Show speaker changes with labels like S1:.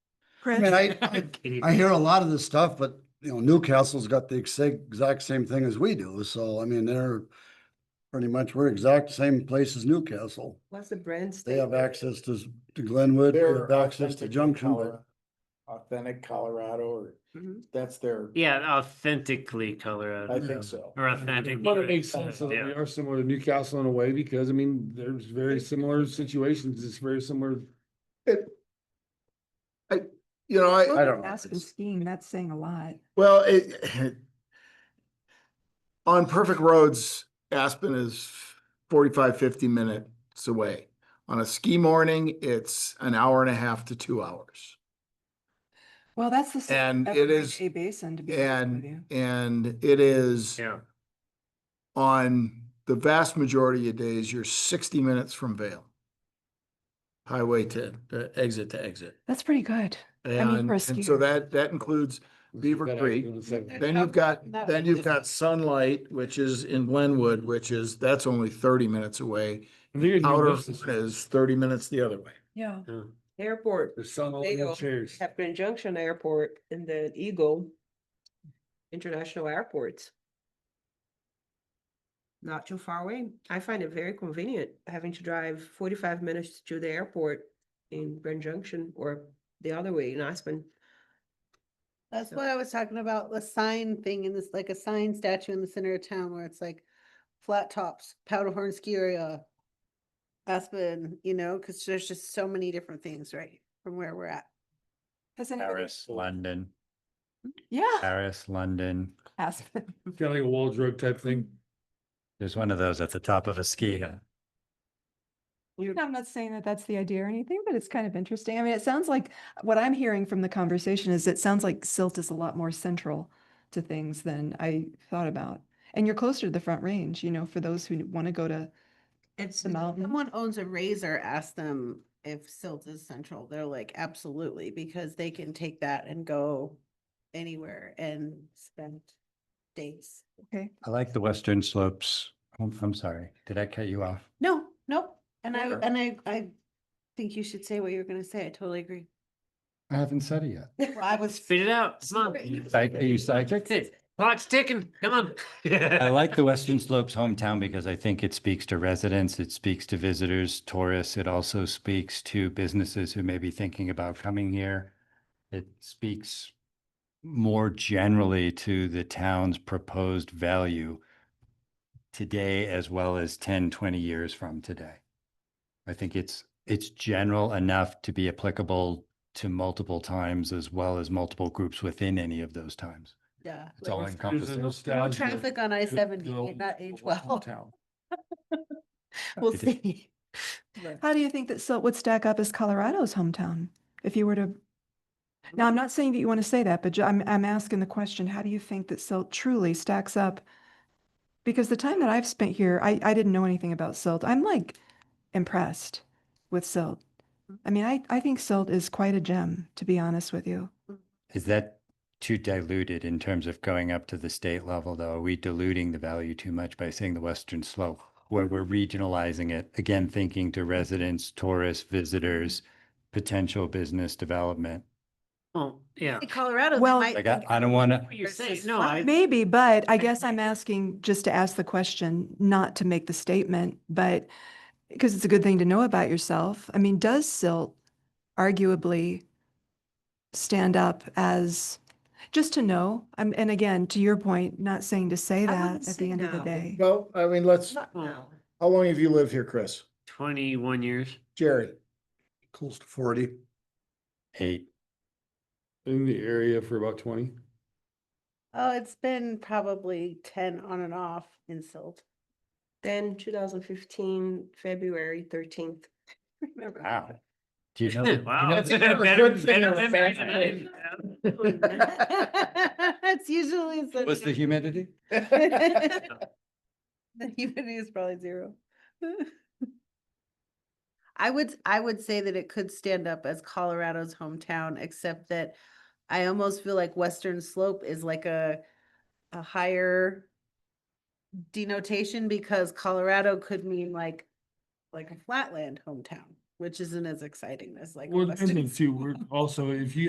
S1: I
S2: Chris?
S1: mean, I, I,
S3: Katie.
S1: I hear a lot of this stuff, but you know, Newcastle's got the exact, exact same thing as we do. So I mean, they're pretty much, we're exact same place as Newcastle.
S2: What's the brand
S1: They
S2: state?
S1: have access to, s- to Glenwood, they
S4: They're
S1: have access to
S4: authentic
S1: Junction. but
S4: Color- Authentic Colorado, or
S2: Mhm.
S4: that's their,
S3: Yeah, authentically
S4: I
S3: Colorado
S4: think so.
S3: or authentic.
S5: But it makes sense that we
S3: Yeah.
S5: are similar to Newcastle in a way because I mean, there's very similar situations. It's very similar.
S4: You know, I,
S1: I don't know.
S6: Ask him
S1: It's-
S6: skiing, that's saying a lot.
S4: well, it. On perfect roads, Aspen is 45, 50 minutes away. On a ski morning, it's an hour and a half to two hours.
S6: Well, that's the. same
S4: And
S6: every
S4: it is-
S6: A basin to be. honest with
S4: And,
S6: you.
S4: and it is
S3: Yeah,
S4: on the vast majority of days, you're sixty minutes from Vale. Highway to, to exit to exit.
S6: That's pretty good. mean,
S4: And,
S6: for a
S4: and so
S6: skier.
S4: that, that includes, Beaver
S5: That I
S4: Creek.
S5: feel the same.
S4: then you've got, then you've got sunlight, which is in Glenwood, which is, that's only thirty minutes away.
S5: And they're gonna
S4: Outer
S5: do this.
S4: is thirty minutes the other way.
S6: Yeah.
S3: yeah.
S2: Airport,
S5: There's some
S2: They go-
S5: old chairs.
S2: at Grand Junction Airport and then Eagle. International airports. Not too far away. I find it very convenient having to drive forty-five minutes to the airport in Grand Junction or the other way in Aspen.
S7: That's
S2: So-
S7: what I was talking about, the sign thing in this, like a sign statue in the center of town where it's like flat tops, Powderhorn Ski Area, Aspen, you know, because there's just so many different things, right, from where we're at.
S6: Has anybody-
S8: Paris, London,
S6: Yeah.
S8: Paris, London.
S6: Ask them.
S5: Kind of like a wall drug type thing.
S8: There's one of those at the top of a ski hill.
S6: I'm not saying that that's the idea or anything, but it's kind of interesting. I mean, it sounds like, what I'm hearing from the conversation is it sounds like silt is a lot more central to things than I thought about. And you're closer to the front range, you know, for those who want to go to
S2: It's
S6: the mountain.
S7: Someone owns a razor, ask them if silt is central, they're like, absolutely, because they can take that and go anywhere and spend days.
S6: Okay.
S8: I like the western slopes. Oh, I'm, I'm sorry, did I cut you off?
S7: No, nope, and I,
S2: Sure.
S7: and I, I think you should say what you were gonna say, I totally agree.
S8: I haven't said it yet.
S7: Well, I was
S3: Spit it out. Come on.
S7: You
S8: Psych- Are you psychic?
S3: That's it. Clock's ticking. Come on.
S8: I like the Western Slopes hometown because I think it speaks to residents, it speaks to visitors, tourists. It also speaks to businesses who may be thinking about coming here. It speaks more generally to the town's proposed value today as well as 10, 20 years from today. I think it's, it's general enough to be applicable to multiple times as well as multiple groups within any of those times.
S7: Yeah.
S8: It's all
S5: There's a
S8: encompassing.
S5: nostalgia
S7: Traffic on I
S5: to the
S7: seventy,
S5: old-
S7: not age
S5: old
S7: well.
S5: town.
S7: We'll
S8: It is.
S7: see.
S6: How do you think that silt would stack up as Colorado's hometown? If you were to, now I'm not saying that you want to say that, but ju- I'm, I'm asking the question, how do you think that silt truly stacks up? Because the time that I've spent here, I, I didn't know anything about silt. I'm like impressed with silt. I mean, I, I think silt is quite a gem, to be honest with you.
S8: Is that too diluted in terms of going up to the state level, though? Are we diluting the value too much by saying the Western Slope, where we're regionalizing it? Again, thinking to residents, tourists, visitors, potential business development.
S3: Oh, yeah.
S7: In Colorado. they
S6: Well-
S7: might
S8: Like, I,
S7: think
S8: I don't want to,
S3: What you're
S7: Versus
S3: saying, no,
S7: not
S3: I,
S6: Maybe, but I guess I'm asking just to ask the question, not to make the statement, but because it's a good thing to know about yourself. I mean, does silt arguably stand up as, just to know? I'm, and again, to your point, not saying to say
S2: I
S6: that
S2: wouldn't
S6: at
S2: say
S6: the end of the
S2: no.
S6: day.
S4: Well, I mean, let's,
S2: Not now.
S4: how long have you lived here, Chris?
S3: twenty-one years.
S4: Jerry?
S1: Close to forty.
S8: eight,
S5: In the area for about twenty.
S7: Oh, it's been probably ten on and off in silt.
S2: Then two thousand fifteen, February thirteenth. Remember?
S8: wow. Do you know? the- do you
S3: Wow.
S8: know
S3: Better-
S8: the-
S3: better
S5: thing or a
S3: than
S5: bad
S3: mine.
S7: It's usually.
S8: What's the humidity?
S7: The humidity is probably zero. I would, I would say that it could stand up as Colorado's hometown, except that I almost feel like Western Slope is like a, a higher denotation because Colorado could mean like, like a flatland hometown, which isn't as exciting as like. a
S5: Well,
S7: Western
S5: and then too,
S7: Slope.
S5: we're also, if you